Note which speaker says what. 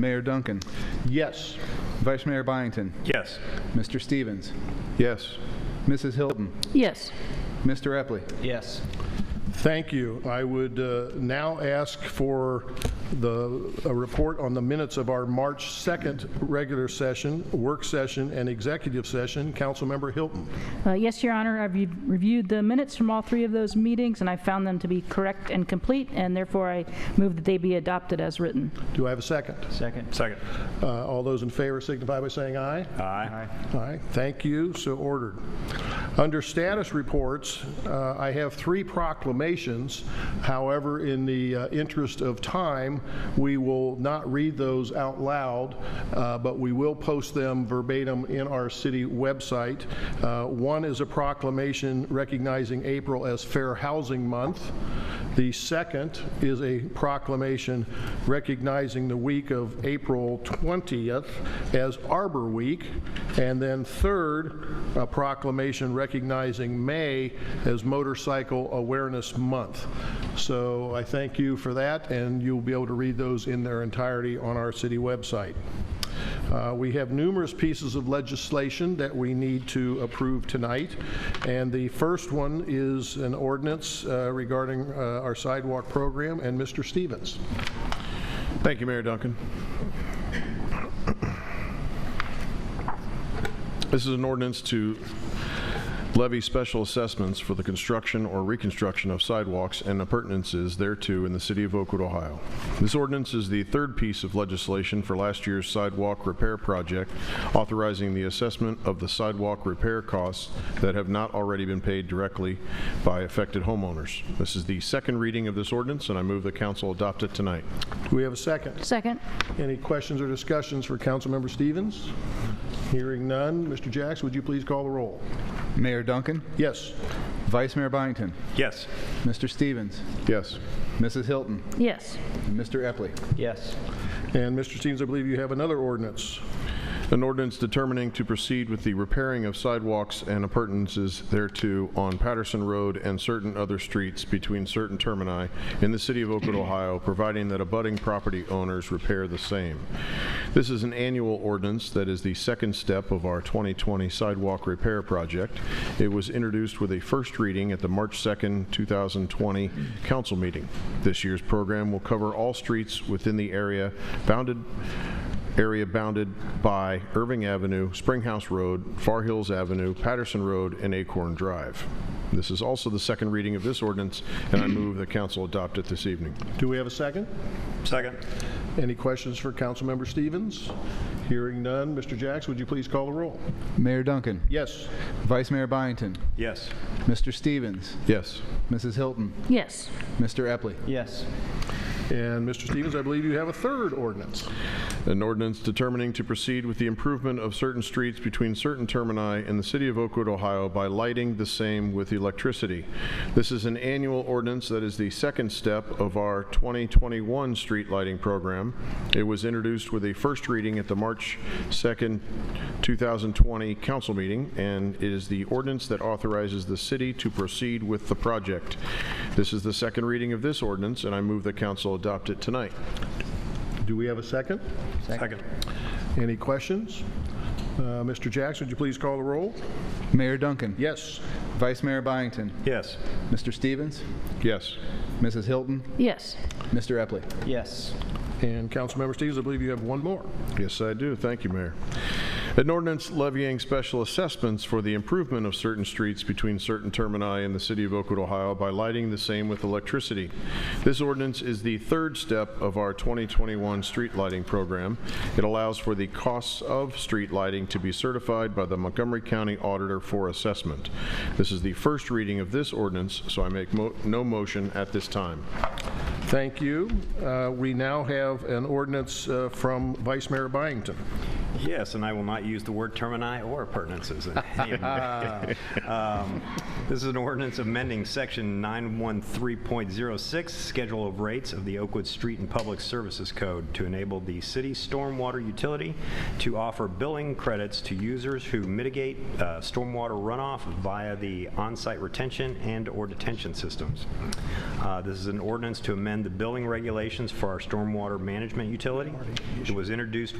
Speaker 1: Mayor Duncan.
Speaker 2: Yes.
Speaker 1: Vice Mayor Byington.
Speaker 3: Yes.
Speaker 1: Mr. Stevens.
Speaker 2: Yes.
Speaker 1: Mrs. Hilton.
Speaker 4: Yes.
Speaker 1: Mr. Epley.
Speaker 5: Yes.
Speaker 2: Thank you. I would uh, now ask for the, a report on the minutes of our March 2nd regular session, work session, and executive session. Councilmember Hilton.
Speaker 4: Uh, Yes, Your Honor, I've re- reviewed the minutes from all three of those meetings, and I found them to be correct and complete, and therefore I move that they be adopted as written.
Speaker 2: Do I have a second?
Speaker 5: Second.
Speaker 3: Second.
Speaker 2: Uh, All those in favor signify by saying aye.
Speaker 3: Aye.
Speaker 2: Aye, thank you, so ordered. Under status reports, uh, I have three proclamations. However, in the uh, interest of time, we will not read those out loud, uh, but we will post them verbatim in our city website. Uh, One is a proclamation recognizing April as Fair Housing Month. The second is a proclamation recognizing the week of April 20th as Arbor Week. And then third, a proclamation recognizing May as Motorcycle Awareness Month. So I thank you for that, and you'll be able to read those in their entirety on our city website. Uh, We have numerous pieces of legislation that we need to approve tonight, and the first one is an ordinance uh, regarding uh, our sidewalk program, and Mr. Stevens.
Speaker 6: Thank you, Mayor Duncan. This is an ordinance to levy special assessments for the construction or reconstruction of sidewalks and appurtenances thereto in the city of Oakwood, Ohio. This ordinance is the third piece of legislation for last year's sidewalk repair project, authorizing the assessment of the sidewalk repair costs that have not already been paid directly by affected homeowners. This is the second reading of this ordinance, and I move the council adopt it tonight.
Speaker 2: Do we have a second?
Speaker 4: Second.
Speaker 2: Any questions or discussions for Councilmember Stevens? Hearing none. Mr. Jacks, would you please call the roll?
Speaker 1: Mayor Duncan.
Speaker 2: Yes.
Speaker 1: Vice Mayor Byington.
Speaker 3: Yes.
Speaker 1: Mr. Stevens.
Speaker 6: Yes.
Speaker 1: Mrs. Hilton.
Speaker 4: Yes.
Speaker 1: and Mr. Epley.
Speaker 5: Yes.
Speaker 2: And Mr. Stevens, I believe you have another ordinance.
Speaker 6: An ordinance determining to proceed with the repairing of sidewalks and appurtenances thereto on Patterson Road and certain other streets between certain termini in the city of Oakwood, Ohio, providing that abutting property owners repair the same. This is an annual ordinance that is the second step of our 2020 sidewalk repair project. It was introduced with a first reading at the March 2nd, 2020 council meeting. This year's program will cover all streets within the area bounded area bounded by Irving Avenue, Springhouse Road, Far Hills Avenue, Patterson Road, and Acorn Drive. This is also the second reading of this ordinance, and I move that council adopt it this evening.
Speaker 2: Do we have a second?
Speaker 3: Second.
Speaker 2: Any questions for Councilmember Stevens? Hearing none. Mr. Jacks, would you please call the roll?
Speaker 1: Mayor Duncan.
Speaker 2: Yes.
Speaker 1: Vice Mayor Byington.
Speaker 3: Yes.
Speaker 1: Mr. Stevens.
Speaker 6: Yes.
Speaker 1: Mrs. Hilton.
Speaker 4: Yes.
Speaker 1: Mr. Epley.
Speaker 5: Yes.
Speaker 2: And Mr. Stevens, I believe you have a third ordinance.
Speaker 6: An ordinance determining to proceed with the improvement of certain streets between certain termini in the city of Oakwood, Ohio by lighting the same with electricity. This is an annual ordinance that is the second step of our 2021 street lighting program. It was introduced with a first reading at the March 2nd, 2020 council meeting and is the ordinance that authorizes the city to proceed with the project. This is the second reading of this ordinance and I move the council adopt it tonight.
Speaker 2: Do we have a second?
Speaker 3: Second.
Speaker 2: Any questions? Uh, Mr. Jackson, would you please call the roll?
Speaker 1: Mayor Duncan.
Speaker 2: Yes.
Speaker 1: Vice Mayor Byington.
Speaker 3: Yes.
Speaker 1: Mr. Stevens.
Speaker 6: Yes.
Speaker 1: Mrs. Hilton.
Speaker 4: Yes.
Speaker 1: Mr. Epley.
Speaker 5: Yes.
Speaker 2: And Councilmember Stevens, I believe you have one more.
Speaker 6: Yes, I do. Thank you, Mayor. An ordinance levying special assessments for the improvement of certain streets between certain termini in the city of Oakwood, Ohio by lighting the same with electricity. This ordinance is the third step of our 2021 street lighting program. It allows for the costs of street lighting to be certified by the Montgomery County Auditor for assessment. This is the first reading of this ordinance, so I make mo- no motion at this time.
Speaker 2: Thank you. Uh, We now have an ordinance uh, from Vice Mayor Byington.
Speaker 3: Yes, and I will not use the word termini or appurtenances. in any of them. Um, This is an ordinance amending Section 913.06, Schedule of Rates of the Oakwood Street and Public Services Code to enable the city stormwater utility to offer billing credits to users who mitigate uh, stormwater runoff via the on-site retention and/or detention systems. Uh, This is an ordinance to amend the billing regulations for our stormwater management utility. It was introduced